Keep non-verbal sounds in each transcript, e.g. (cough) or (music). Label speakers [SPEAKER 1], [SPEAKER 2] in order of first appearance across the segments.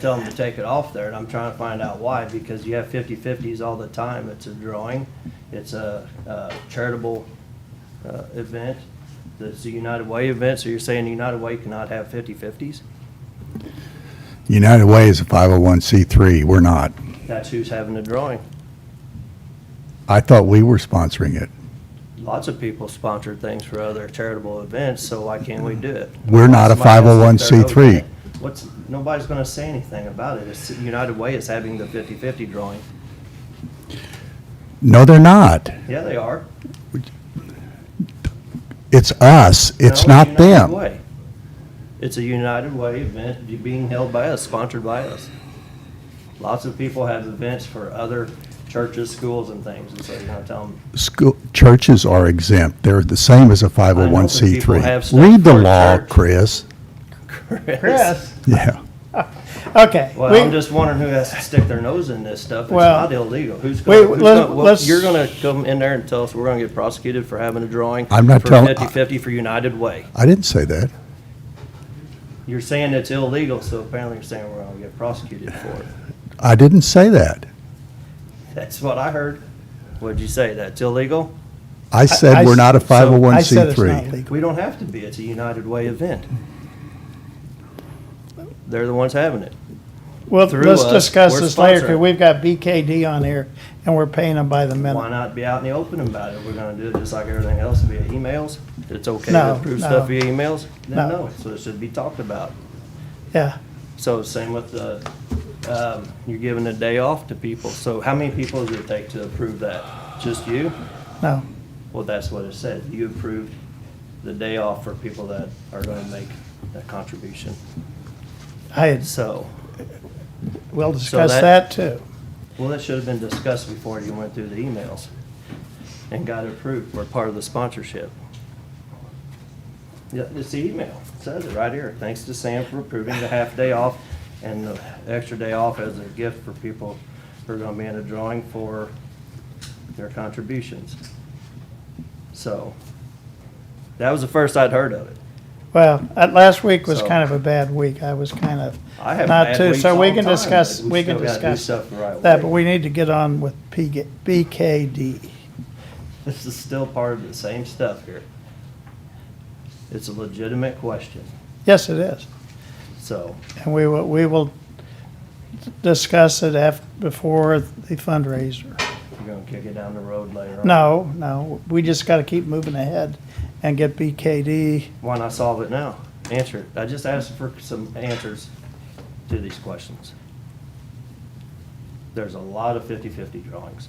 [SPEAKER 1] tell them to take it off there, and I'm trying to find out why, because you have 50/50s all the time. It's a drawing, it's a uh, charitable uh, event, it's a United Way event, so you're saying United Way cannot have 50/50s?
[SPEAKER 2] United Way is a 501c3. We're not.
[SPEAKER 1] That's who's having the drawing.
[SPEAKER 2] I thought we were sponsoring it.
[SPEAKER 1] Lots of people sponsor things for other charitable events, so why can't we do it?
[SPEAKER 2] We're not a
[SPEAKER 1] Somebody else out there
[SPEAKER 2] 501c3.
[SPEAKER 1] voting it. What's, nobody's gonna say anything about it. It's, United Way is having the 50/50 drawing.
[SPEAKER 2] No, they're not.
[SPEAKER 1] Yeah, they are.
[SPEAKER 2] It's us. It's
[SPEAKER 1] No,
[SPEAKER 2] not
[SPEAKER 1] United
[SPEAKER 2] them.
[SPEAKER 1] Way. It's a United Way event being held by us, sponsored by us. Lots of people have events for other churches, schools, and things, and so you're gonna tell them.
[SPEAKER 2] School, churches are exempt. They're the same as a
[SPEAKER 1] people have
[SPEAKER 2] 501c3.
[SPEAKER 1] stuff
[SPEAKER 2] Read the
[SPEAKER 1] for
[SPEAKER 2] law,
[SPEAKER 1] church.
[SPEAKER 2] Chris.
[SPEAKER 3] Chris,
[SPEAKER 2] Yeah.
[SPEAKER 3] okay.
[SPEAKER 1] Well,
[SPEAKER 3] we-
[SPEAKER 1] I'm just wondering who has to stick their nose in this stuff. It's
[SPEAKER 3] Well-
[SPEAKER 1] not illegal. Who's
[SPEAKER 3] Wait,
[SPEAKER 1] gonna, who's
[SPEAKER 3] let-
[SPEAKER 1] gonna, well,
[SPEAKER 3] let's-
[SPEAKER 1] you're gonna come in there and tell us we're gonna get prosecuted for having a drawing?
[SPEAKER 2] I'm not
[SPEAKER 1] for
[SPEAKER 2] telling-
[SPEAKER 1] Fifty-fifty for United Way.
[SPEAKER 2] I didn't say that.
[SPEAKER 1] You're saying it's illegal, so apparently you're saying we're gonna get prosecuted for it. (laughs)
[SPEAKER 2] I didn't say that.
[SPEAKER 1] That's what I heard. What'd you say? That's illegal?
[SPEAKER 2] I
[SPEAKER 3] I-
[SPEAKER 2] said we're not a
[SPEAKER 3] so I said it's not
[SPEAKER 2] 501c3.
[SPEAKER 3] legal.
[SPEAKER 1] We don't have to be. It's a United Way event. They're the ones having it.
[SPEAKER 3] Well,
[SPEAKER 1] through
[SPEAKER 3] let's
[SPEAKER 1] us,
[SPEAKER 3] discuss
[SPEAKER 1] we're
[SPEAKER 3] this later, because
[SPEAKER 1] sponsoring.
[SPEAKER 3] we've got BKD on here, and we're paying them by the
[SPEAKER 1] Why
[SPEAKER 3] minute.
[SPEAKER 1] not be out in the open about it? We're gonna do it just like everything else via emails. It's okay to
[SPEAKER 3] No,
[SPEAKER 1] approve
[SPEAKER 3] no.
[SPEAKER 1] stuff via emails? Then
[SPEAKER 3] No.
[SPEAKER 1] no, so it should be talked about.
[SPEAKER 3] Yeah,
[SPEAKER 1] So same with the, um, you're giving a day off to people. So how many people does it take to approve that? Just you?
[SPEAKER 3] no,
[SPEAKER 1] Well, that's what it said. You approved the day off for people that are gonna make a contribution.
[SPEAKER 3] I, had-
[SPEAKER 1] So,
[SPEAKER 3] we'll discuss
[SPEAKER 1] that-
[SPEAKER 3] that too.
[SPEAKER 1] Well, that should have been discussed before you went through the emails and got approved for part of the sponsorship. Yeah, it's the email, It says it right here. Thanks to Sam for approving the half day off and the extra day off as a gift for people who are gonna be in a drawing for their contributions. So, that was the first I'd heard of it.
[SPEAKER 3] Well, uh, last week was
[SPEAKER 1] So-
[SPEAKER 3] kind of a bad week, I was kind of
[SPEAKER 1] I have
[SPEAKER 3] not
[SPEAKER 1] bad
[SPEAKER 3] too,
[SPEAKER 1] weeks
[SPEAKER 3] so we
[SPEAKER 1] all
[SPEAKER 3] can
[SPEAKER 1] the time,
[SPEAKER 3] discuss,
[SPEAKER 1] but we
[SPEAKER 3] we can
[SPEAKER 1] still gotta do
[SPEAKER 3] discuss
[SPEAKER 1] stuff the right
[SPEAKER 3] that,
[SPEAKER 1] way.
[SPEAKER 3] but we need to get on with PG BKD.
[SPEAKER 1] (laughs) This is still part of the same stuff here. It's a legitimate question,
[SPEAKER 3] Yes, it is,
[SPEAKER 1] so.
[SPEAKER 3] and we will, we will discuss it af, before the fundraiser.
[SPEAKER 1] You're gonna kick it down the road later on.
[SPEAKER 3] No, no, we just gotta keep moving ahead and get BKD.
[SPEAKER 1] Why not solve it now? Answer it. I just asked for some answers to these questions. There's a lot of 50-50 drawings.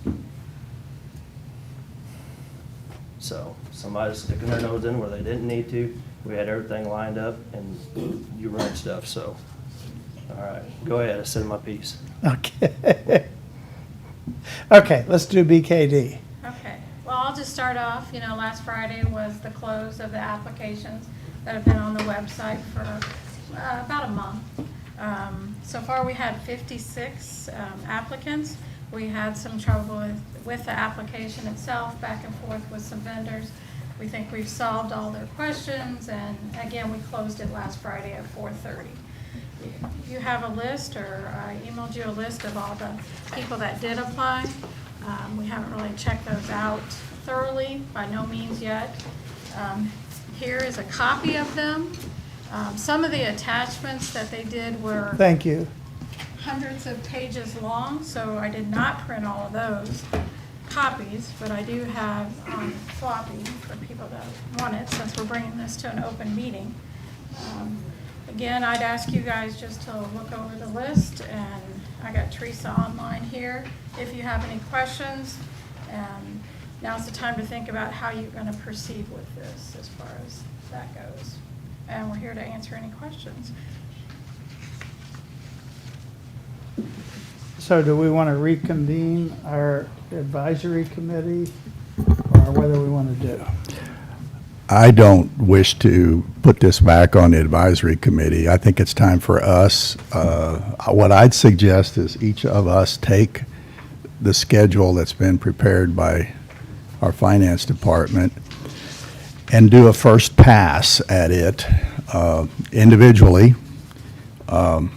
[SPEAKER 1] So somebody's sticking their nose in where they didn't need to. We had everything lined up and you run stuff, so. All right, go ahead. I said my piece.
[SPEAKER 3] Okay. (laughs) Okay, let's do BKD.
[SPEAKER 4] Okay, well, I'll just start off, you know, last Friday was the close of the applications that have been on the website for uh, about a month. Um, So far, we had 56 um, applicants. We had some trouble with, with the application itself, back and forth with some vendors. We think we've solved all their questions, and again, we closed it last Friday at 4:30 you have a list, or I emailed you a list of all the people that did apply. Um, We haven't really checked those out thoroughly, by no means yet. Um, Here is a copy of them. Um, Some of the attachments that they did were
[SPEAKER 3] Thank you.
[SPEAKER 4] hundreds of pages long, so I did not print all of those copies, but I do have um, floppy for people that want it, since we're bringing this to an open meeting. Um, Again, I'd ask you guys just to look over the list, and I got Teresa online here, if you have any questions. um, Now's the time to think about how you're gonna proceed with this, as far as that goes. And we're here to answer any questions.
[SPEAKER 3] So do we want to reconvene our advisory committee or whether we want to do?
[SPEAKER 2] I don't wish to put this back on the advisory committee. I think it's time for us, uh, what I'd suggest is each of us take the schedule that's been prepared by our finance department and do a first pass at it uh, individually. Um,